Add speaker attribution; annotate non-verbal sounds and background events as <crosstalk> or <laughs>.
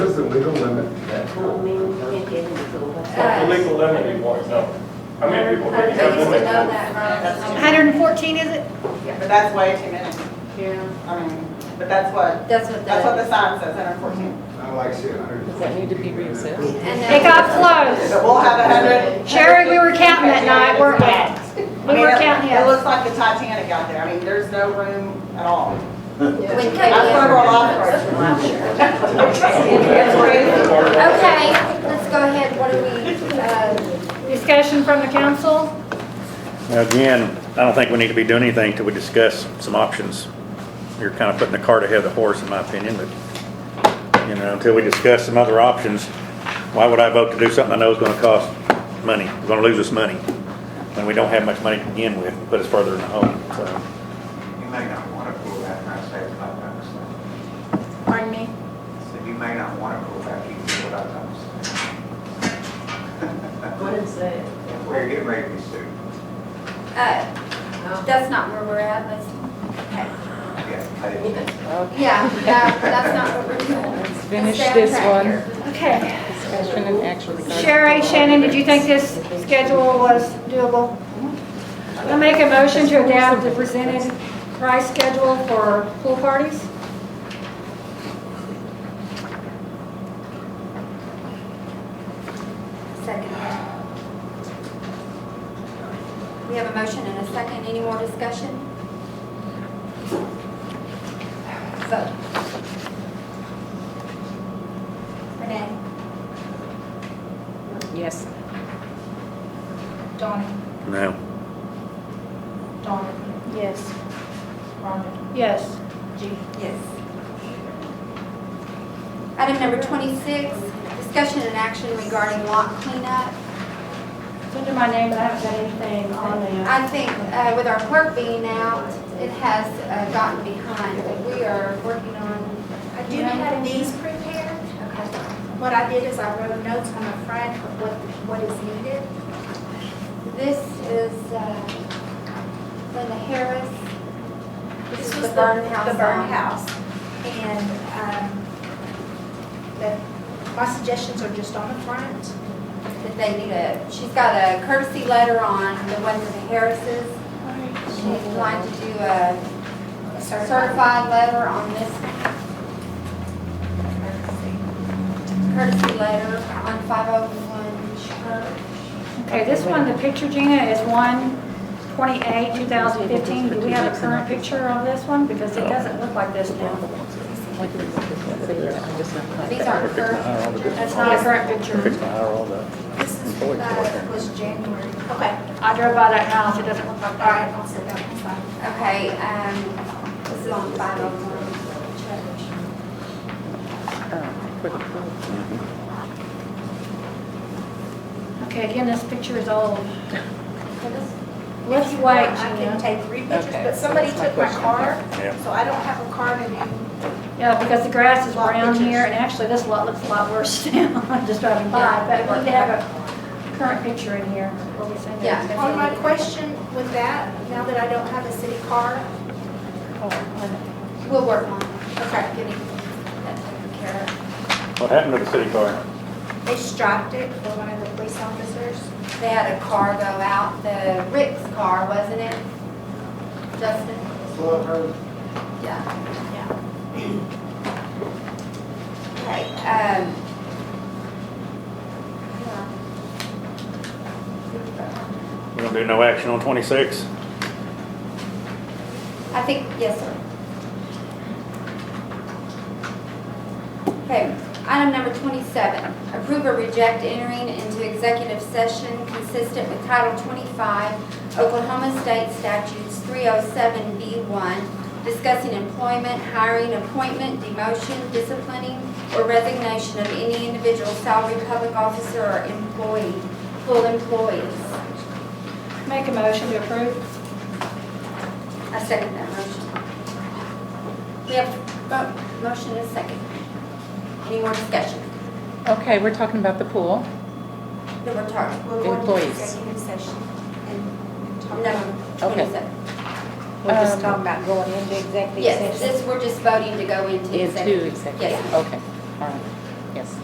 Speaker 1: the legal limit anymore, no. How many people can you have
Speaker 2: Please
Speaker 1: limit?
Speaker 2: to know that, right?
Speaker 3: 114, is it?
Speaker 4: Yeah, but that's way too many.
Speaker 2: Yeah,
Speaker 4: I mean, but that's what,
Speaker 2: that's what
Speaker 4: that's what
Speaker 2: the.
Speaker 4: the sign says, 114.
Speaker 5: I like seeing a hundred.
Speaker 6: Does that need to be recessed?
Speaker 2: and that-
Speaker 3: It got close.
Speaker 4: So we'll have 100.
Speaker 3: Sherry, we were counting that night, weren't we?
Speaker 4: I
Speaker 3: We
Speaker 4: mean,
Speaker 3: were
Speaker 4: it-
Speaker 3: counting,
Speaker 4: It
Speaker 3: yes.
Speaker 4: looks like the Titanic out there. I mean, there's no room at all.
Speaker 2: When Cody-
Speaker 4: That's why we're all off. It's crazy.
Speaker 2: Okay, let's go ahead, what do we, uh,
Speaker 3: Discussion from the council?
Speaker 7: Now, Again, I don't think we need to be doing anything till we discuss some options. You're kind of putting the cart ahead of the horse, in my opinion, but, you know, until we discuss some other options, why would I vote to do something I know is gonna cost money, We're gonna lose us money, when we don't have much money to begin with, and put us further in the hole, so.
Speaker 5: You may not want to pull back, I say what I was saying.
Speaker 3: Pardon me?
Speaker 5: I said, you may not want to pull back, you do what I was saying.
Speaker 6: What is that?
Speaker 5: If we're getting ready to sue,
Speaker 2: uh, that's not where we're at, let's, okay.
Speaker 5: yeah.
Speaker 2: Yeah, that- that's not what we're doing.
Speaker 6: Let's finish
Speaker 2: Let's stay on
Speaker 6: this
Speaker 2: track
Speaker 6: one.
Speaker 2: here.
Speaker 3: Okay.
Speaker 6: Discussion and action regarding.
Speaker 3: Sherry, Shannon, did you think this schedule was doable? I'll make a motion to adapt the presented price schedule for pool parties.
Speaker 2: Second. We have a motion and a second. Any more discussion? Vote. Renee?
Speaker 6: Yes.
Speaker 8: Donnie,
Speaker 7: No.
Speaker 8: Donnie,
Speaker 6: Yes.
Speaker 8: Rhonda,
Speaker 3: Yes.
Speaker 8: G.
Speaker 2: Yes. Item number 26, discussion and action regarding lot cleanup.
Speaker 3: It's under my name, but I haven't done anything on that.
Speaker 2: I think uh, with our clerk being out, it has uh, gotten behind, but we are working on,
Speaker 8: I do have these prepared.
Speaker 2: okay.
Speaker 8: What I did is I wrote notes on the front of what, what is needed.
Speaker 2: This is uh, Linda Harris. This is the burn house.
Speaker 8: The burn
Speaker 2: on-
Speaker 8: house. um, And, um, the, my suggestions are just on the front.
Speaker 2: That they need a, she's got a courtesy letter on the one for the Harrises. She's going to do a certified letter on this. one. Courtesy letter on 501 Church.
Speaker 3: Okay, this one, the picture, Gina, is 128, 2015. Do we have a current picture of this one? Because it doesn't look like this now.
Speaker 2: These aren't current.
Speaker 3: That's not a current picture.
Speaker 8: This is, uh, was January. Okay,
Speaker 3: I drove by that house, it doesn't look
Speaker 8: all
Speaker 3: like that.
Speaker 8: right, I'll sit down. It's fine.
Speaker 2: Okay, um, this is on 501 Church.
Speaker 7: Mm-hmm.
Speaker 3: Okay, again, this picture is old.
Speaker 8: If
Speaker 3: Let's
Speaker 8: you want,
Speaker 3: wait,
Speaker 8: I can
Speaker 3: Gina.
Speaker 8: take three pictures,
Speaker 6: Okay,
Speaker 8: but somebody
Speaker 6: that's my
Speaker 8: took my
Speaker 6: question.
Speaker 8: car,
Speaker 7: Yeah.
Speaker 8: so I don't have a car to do.
Speaker 3: Yeah, because the grass is
Speaker 8: Lot
Speaker 3: brown
Speaker 8: pictures.
Speaker 3: here, and actually, this lot looks a lot worse <laughs> now. I'm just driving by, but we have a current picture in here. What we send it.
Speaker 2: Yeah.
Speaker 8: On my question with that, now that I don't have a city car,
Speaker 2: We'll work on it. Okay. Getting that taken care of.
Speaker 7: What happened to the city car?
Speaker 8: they striped it for one of the police officers.
Speaker 2: They had a car go out, the Rick's car, wasn't it? Justin?
Speaker 5: Slow her.
Speaker 2: Yeah. <clears throat> Okay, um. yeah.
Speaker 7: We're gonna do no action on twenty-six?
Speaker 2: I think, yes, sir. Okay, item number 27, approve or reject entering into executive session consistent with Title 25 Oklahoma State Statutes 307B1, discussing employment, hiring, appointment, demotion, disciplining, or resignation of any individual salary public officer or employee, full employees.
Speaker 3: Make a motion to approve.
Speaker 2: I second that motion. We have a motion and a second. Any more discussion
Speaker 6: Okay, we're talking about the pool.
Speaker 2: that we're talking?
Speaker 8: We're going to
Speaker 6: Employees.
Speaker 8: executive session and talk about.
Speaker 2: No, 27.
Speaker 6: We're just
Speaker 3: talking about going into executive
Speaker 2: Yes, this, we're just voting to go into
Speaker 6: Into
Speaker 2: executive.
Speaker 6: executive,
Speaker 2: Yes.
Speaker 6: okay, all right.